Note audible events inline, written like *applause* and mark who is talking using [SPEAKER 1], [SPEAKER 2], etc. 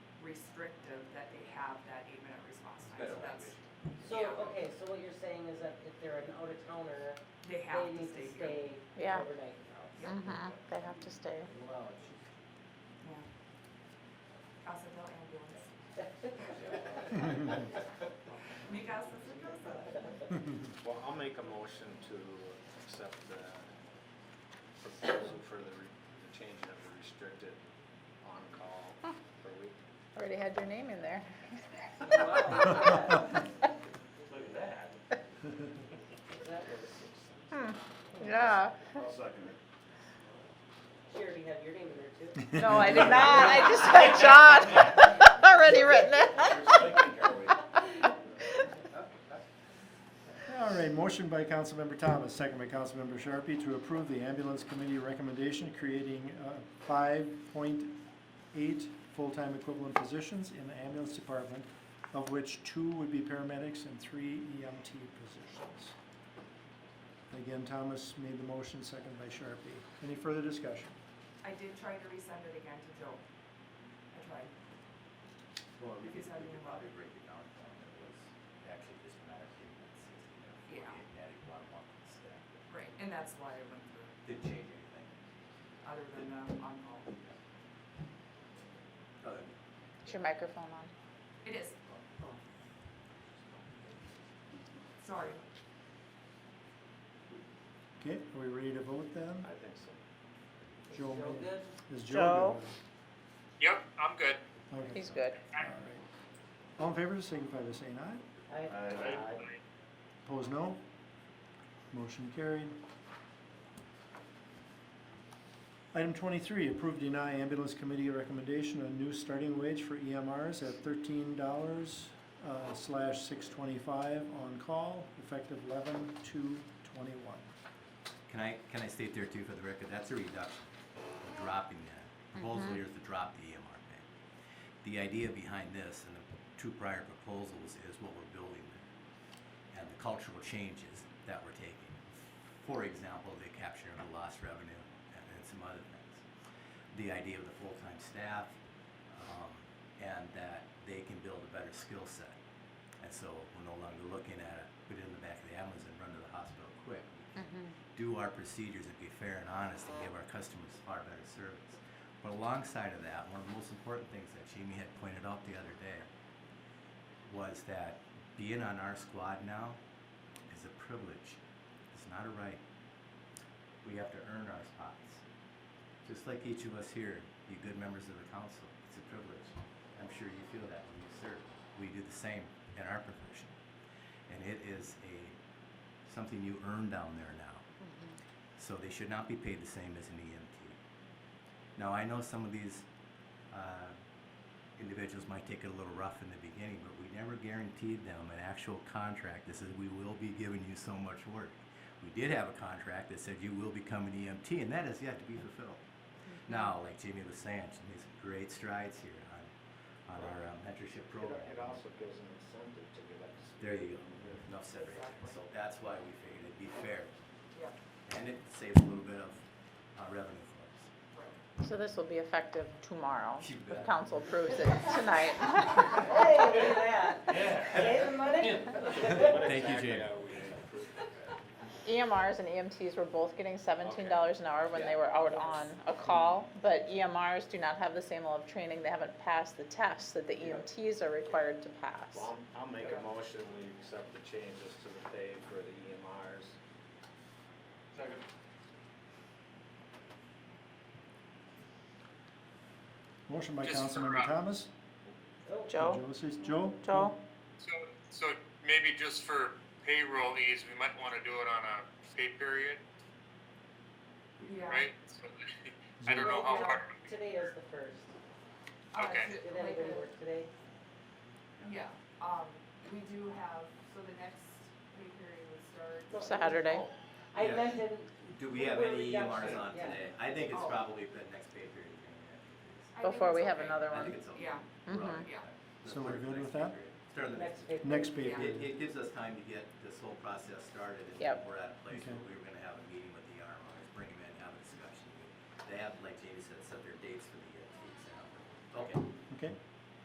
[SPEAKER 1] So, okay, so what you're saying is that if they're an out-of-towner,
[SPEAKER 2] They have
[SPEAKER 1] they
[SPEAKER 2] to
[SPEAKER 1] need
[SPEAKER 2] stay
[SPEAKER 1] to
[SPEAKER 2] here.
[SPEAKER 1] stay
[SPEAKER 3] Yeah.
[SPEAKER 1] overnight in the house.
[SPEAKER 3] Mm-hmm, they have to stay.
[SPEAKER 1] Wow, she's-
[SPEAKER 2] Casa del
[SPEAKER 1] *laughs*
[SPEAKER 2] ambulance. Mi casa es su casa.
[SPEAKER 4] Well, I'll make a motion to accept the proposal for the, re- the change of the restricted on-call per week.
[SPEAKER 3] Already had your name in there.
[SPEAKER 5] Look at that.
[SPEAKER 1] That was-
[SPEAKER 3] Yeah.
[SPEAKER 4] *laughs*
[SPEAKER 1] She already had your name in there
[SPEAKER 2] *laughs*
[SPEAKER 1] too.
[SPEAKER 3] No, I did not, I just had John *laughs* already written it.
[SPEAKER 6] All right, motion by Councilmember Thomas, second by Councilmember Sharpie to approve the ambulance committee recommendation creating uh, five point eight full-time equivalent positions in the ambulance department, of which two would be paramedics and three EMT positions. Again, Thomas made the motion, second by Sharpie. Any further discussion?
[SPEAKER 2] I did try to resend it again to Joe. I tried.
[SPEAKER 5] Well, we
[SPEAKER 2] Because
[SPEAKER 5] could,
[SPEAKER 2] I
[SPEAKER 5] we
[SPEAKER 2] mean-
[SPEAKER 5] could probably break it down to one that was actually just an attitude and sixty, and
[SPEAKER 2] Yeah.
[SPEAKER 5] forty, and added one month instead.
[SPEAKER 2] Right. And that's why I went through,
[SPEAKER 5] Didn't change anything,
[SPEAKER 2] other than um, on call.
[SPEAKER 5] other than
[SPEAKER 3] Is your microphone on?
[SPEAKER 2] It is. Sorry.
[SPEAKER 6] Okay, are we ready to vote then?
[SPEAKER 4] I think so.
[SPEAKER 6] Joe
[SPEAKER 1] Feel
[SPEAKER 6] made-
[SPEAKER 1] good?
[SPEAKER 6] Is
[SPEAKER 3] Joe?
[SPEAKER 6] Joe
[SPEAKER 7] Yep, I'm good.
[SPEAKER 6] good? Okay.
[SPEAKER 3] He's good.
[SPEAKER 6] All right. All in favor, signify by saying aye.
[SPEAKER 1] I,
[SPEAKER 6] Opposed, no. Motion carried. Item twenty-three, approve deny ambulance committee recommendation on new starting wage for EMRs at thirteen dollars uh, slash six twenty-five on call, effective eleven two twenty-one.
[SPEAKER 8] Can I, can I state there too for the record, that's a reduction, We're dropping that. Proposal here is to drop the EMR pay. The idea behind this and the two prior proposals is what we're building there. And the cultural changes that we're taking. For example, the capture of the lost revenue and and some other things. The idea of the full-time staff, um, and that they can build a better skill set. And so we're no longer looking at, it, put it in the back of the ambulance and run to the hospital quick. We can Do our procedures and be fair and honest and give our customers far better service. But alongside of that, one of the most important things that Jamie had pointed out the other day was that being on our squad now is a privilege. It's not a right. We have to earn our spots. Just like each of us here, you good members of the council, it's a privilege. I'm sure you feel that when you serve. We do the same in our profession. And it is a, something you earn down there now. So they should not be paid the same as an EMT. Now, I know some of these uh, individuals might take it a little rough in the beginning, but we never guaranteed them an actual contract that says we will be giving you so much work. We did have a contract that said you will become an EMT, and that has yet to be fulfilled. Now, like Jamie was saying, she made some great strides here on, on our uh, mentorship program.
[SPEAKER 4] It also gives an incentive to get up to speed.
[SPEAKER 8] There you go. Enough said right there. So that's why we figured it'd be fair,
[SPEAKER 2] Yeah.
[SPEAKER 8] and it saves a little bit of uh, revenue for us.
[SPEAKER 3] So this will be effective tomorrow,
[SPEAKER 8] You
[SPEAKER 3] if
[SPEAKER 8] bet.
[SPEAKER 3] council approves it
[SPEAKER 8] *laughs*
[SPEAKER 3] tonight.
[SPEAKER 1] hey, look at that.
[SPEAKER 5] Yeah.
[SPEAKER 1] Saving money?
[SPEAKER 4] What
[SPEAKER 8] *laughs* Thank you,
[SPEAKER 4] exactly
[SPEAKER 8] Jamie.
[SPEAKER 4] are uh, we approving?
[SPEAKER 3] EMRs E and EMTs were both getting seventeen dollars an hour when they were out on a call, but EMRs do not have the same level of training, they haven't passed the tests that the EMTs are required to pass.
[SPEAKER 4] Well, I'll I'll make a motion, we accept the changes to the pay for the E EMRs.
[SPEAKER 5] Second.
[SPEAKER 6] Motion by
[SPEAKER 7] Just for,
[SPEAKER 6] Councilmember
[SPEAKER 7] uh,
[SPEAKER 6] Thomas.
[SPEAKER 1] Oh,
[SPEAKER 3] Joe,
[SPEAKER 6] Joe says, Joe?
[SPEAKER 3] Joe,
[SPEAKER 7] So, so maybe just for payroll ease, we might wanna do it on a pay period,
[SPEAKER 2] Yeah.
[SPEAKER 7] right? So, *laughs* I don't know how
[SPEAKER 1] Well,
[SPEAKER 7] hard,
[SPEAKER 1] Today is the first.
[SPEAKER 2] Uh,
[SPEAKER 7] Okay.
[SPEAKER 2] to-
[SPEAKER 1] Did
[SPEAKER 2] like
[SPEAKER 1] anybody
[SPEAKER 2] a-
[SPEAKER 1] work today?
[SPEAKER 2] Yeah, um, we do have, so the next pay period would start.
[SPEAKER 3] Saturday.
[SPEAKER 1] Oh, I
[SPEAKER 8] Yeah.
[SPEAKER 1] meant in,
[SPEAKER 8] Do we have any EMRs on
[SPEAKER 1] Yeah.
[SPEAKER 8] today? I think it's
[SPEAKER 2] Oh.
[SPEAKER 8] probably the next pay period.
[SPEAKER 2] I think
[SPEAKER 8] we're
[SPEAKER 3] before
[SPEAKER 2] it's
[SPEAKER 3] we have
[SPEAKER 2] okay.
[SPEAKER 3] another one.
[SPEAKER 8] gonna have. I think it's okay.
[SPEAKER 2] Yeah.
[SPEAKER 8] We're all
[SPEAKER 3] Mhm.
[SPEAKER 8] right with
[SPEAKER 2] Yeah.
[SPEAKER 8] that.
[SPEAKER 6] So we're
[SPEAKER 8] Start the
[SPEAKER 6] good
[SPEAKER 8] next
[SPEAKER 6] with
[SPEAKER 8] pay
[SPEAKER 6] that?
[SPEAKER 8] period. Start of the next.
[SPEAKER 1] next paper.
[SPEAKER 6] Next pay
[SPEAKER 2] Yeah.
[SPEAKER 8] It,
[SPEAKER 6] period.
[SPEAKER 8] it gives us time to get this whole process started and
[SPEAKER 3] Yep.
[SPEAKER 8] we're at a place
[SPEAKER 6] Okay.
[SPEAKER 8] where we're gonna have a meeting with the EMRs, bring them in, have a discussion. They have, like Jamie said, set their dates for the EMTs. and all that. Okay,
[SPEAKER 6] Okay,